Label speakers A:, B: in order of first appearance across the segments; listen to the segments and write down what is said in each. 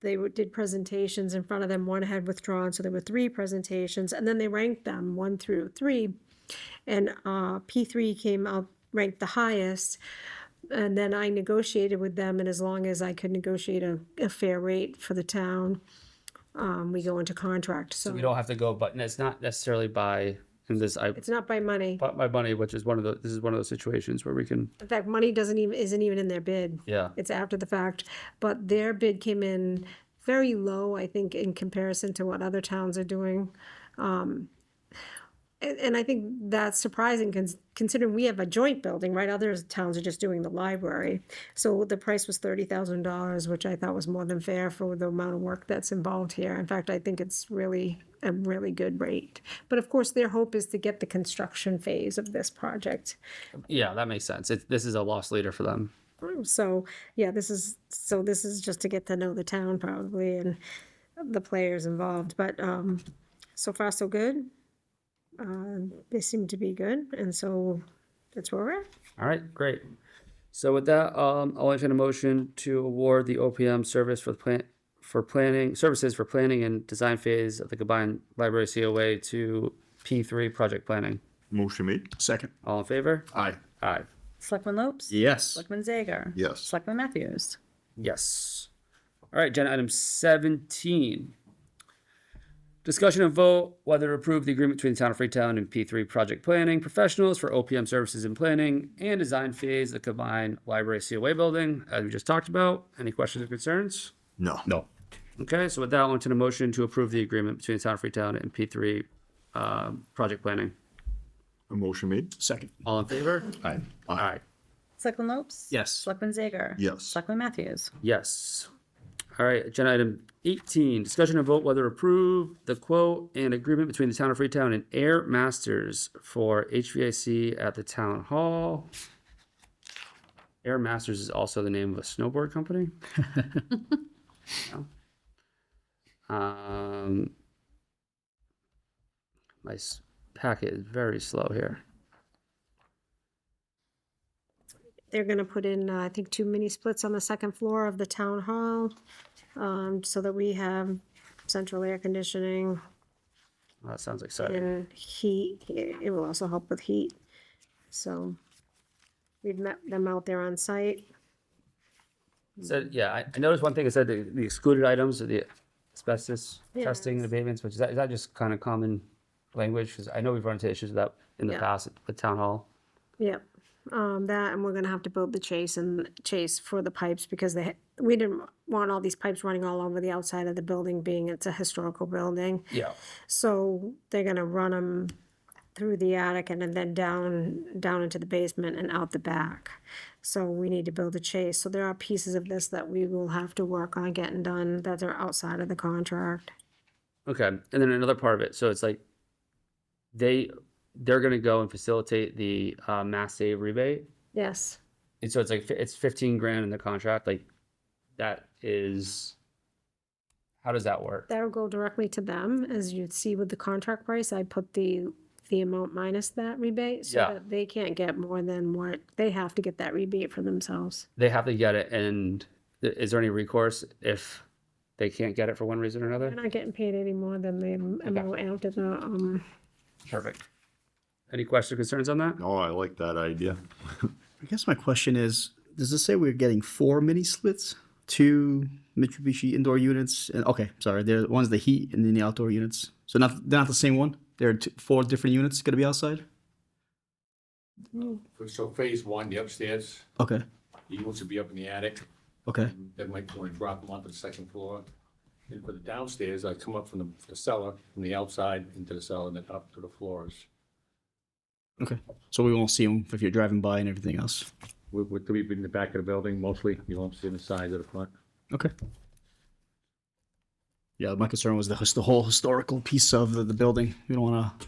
A: they w- did presentations in front of them, one had withdrawn, so there were three presentations, and then they ranked them, one through three. And, uh, P three came up, ranked the highest, and then I negotiated with them, and as long as I could negotiate a, a fair rate for the town, um, we go into contract,
B: We
A: so
B: don't have to go, but it's not necessarily by, and this, I
A: it's not by money.
B: bought my money, which is one of the, this is one of those situations where we can,
A: In fact, money doesn't even, isn't even in their bid.
B: yeah.
A: It's after the fact, but their bid came in very low, I think, in comparison to what other towns are doing. Um, and, and I think that's surprising cons- considering we have a joint building, right? Other towns are just doing the library. So the price was thirty thousand dollars, which I thought was more than fair for the amount of work that's involved here. In fact, I think it's really a really good rate. But of course, their hope is to get the construction phase of this project
B: Yeah, that makes sense. It's, this is a loss leader for them.
A: so yeah this is so this is just to get to know the town probably and the players involved but um so far so good uh, they seem to be good and so that's where we're at
B: All right, great. So with that, um, I'll entertain a motion to award the OPM service for the plant, for planning, services for planning and design phase of the combined library COA to P three project planning.
C: Motion made.
D: Second.
B: All in favor?
D: Aye.
B: Aye.
E: Selectman Lopes?
D: Yes.
E: Selectman Zager?
D: Yes.
E: Selectman Matthews?
B: Yes. All right, agenda item seventeen. Discussion and vote whether to approve the agreement between the town of Freetown and P three project planning professionals for OPM services in planning and design phase, of the combined library COA building, as we just talked about. Any questions or concerns?
C: No.
D: No.
B: Okay, so with that, I'll entertain a motion to approve the agreement between the town of Freetown and P three, um, project planning.
C: A motion made.
D: Second.
B: All in favor?
D: Aye.
B: All right.
E: Selectman Lopes?
D: Yes.
E: Selectman Zager?
C: Yes.
E: Selectman Matthews?
B: Yes. All right, agenda item eighteen, discussion and vote whether to approve the quote and agreement between the town of Freetown and Air Masters for HVAC at the town hall. Air Masters is also the name of a snowboard company. No? Um, my s- packet is very slow here.
A: they're going to put in uh, i think two mini splits on the second floor of the town hall um, so that we have central air conditioning
B: That sounds exciting.
A: and heat it it will also help with heat so we've met them out there on site
B: Said, yeah, I, I noticed one thing, it said the the excluded items are the asbestos testing and abatements, which is that, is that just kind of common language? Because I know we've run into issues with that in the
A: Yeah.
B: past at the town hall.
A: Yep, um, that, and we're gonna have to build the chase and chase for the pipes because they, we didn't want all these pipes running all over the outside of the building, being it's a historical building.
B: Yeah.
A: So they're gonna run them through the attic and then down, down into the basement and out the back. So we need to build a chase. So there are pieces of this that we will have to work on getting done that are outside of the contract.
B: Okay, and then another part of it, so it's like they, they're gonna go and facilitate the, uh, mass save rebate.
A: Yes,
B: And so it's like, fi- it's fifteen grand in the contract, like, that is, how does that work?
A: that'll go directly to them. As you'd see with the contract price, I put the, the amount minus that rebate. So
B: Yeah.
A: that they can't get more than what, they have to get that rebate for themselves.
B: They have to get it, and th- is there any recourse if they can't get it for one reason or another?
A: They're not getting paid any more than the amount after the, um,
B: Perfect. Any questions or concerns on that?
C: No, Oh, I like that idea.
D: I guess my question is, does it say we're getting four mini splits? Two Mitsubishi indoor units and okay, sorry, there one's the heat and then the outdoor units. So not they're not the same one. There are two, four different units gonna be outside.
F: So phase one, the upstairs,
D: Okay.
F: the units will be up in the attic,
D: Okay.
F: then might want to drop them onto the second floor. And for the downstairs, I come up from the- the cellar, from the outside into the cellar, and then up to the floors.
D: Okay. So we won't see them if you're driving by and everything else.
F: We, we, we in the back of the building mostly, you won't see the sides of the front.
D: Okay. Yeah, my concern was the, his- the whole historical piece of the, the building. You don't want to.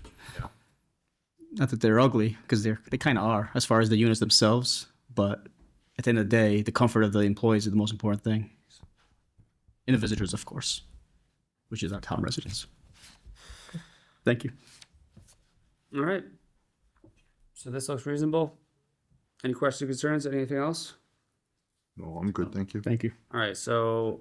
D: Not that they're ugly, because they're they kind of are as far as the units themselves. But at the end of the day, the comfort of the employees is the most important thing, and the visitors, of course, which is our town residents. Thank you.
B: All right. So this looks reasonable. Any questions or concerns? Anything else?
C: No, I'm good, thank you.
D: Thank you.
B: All right, so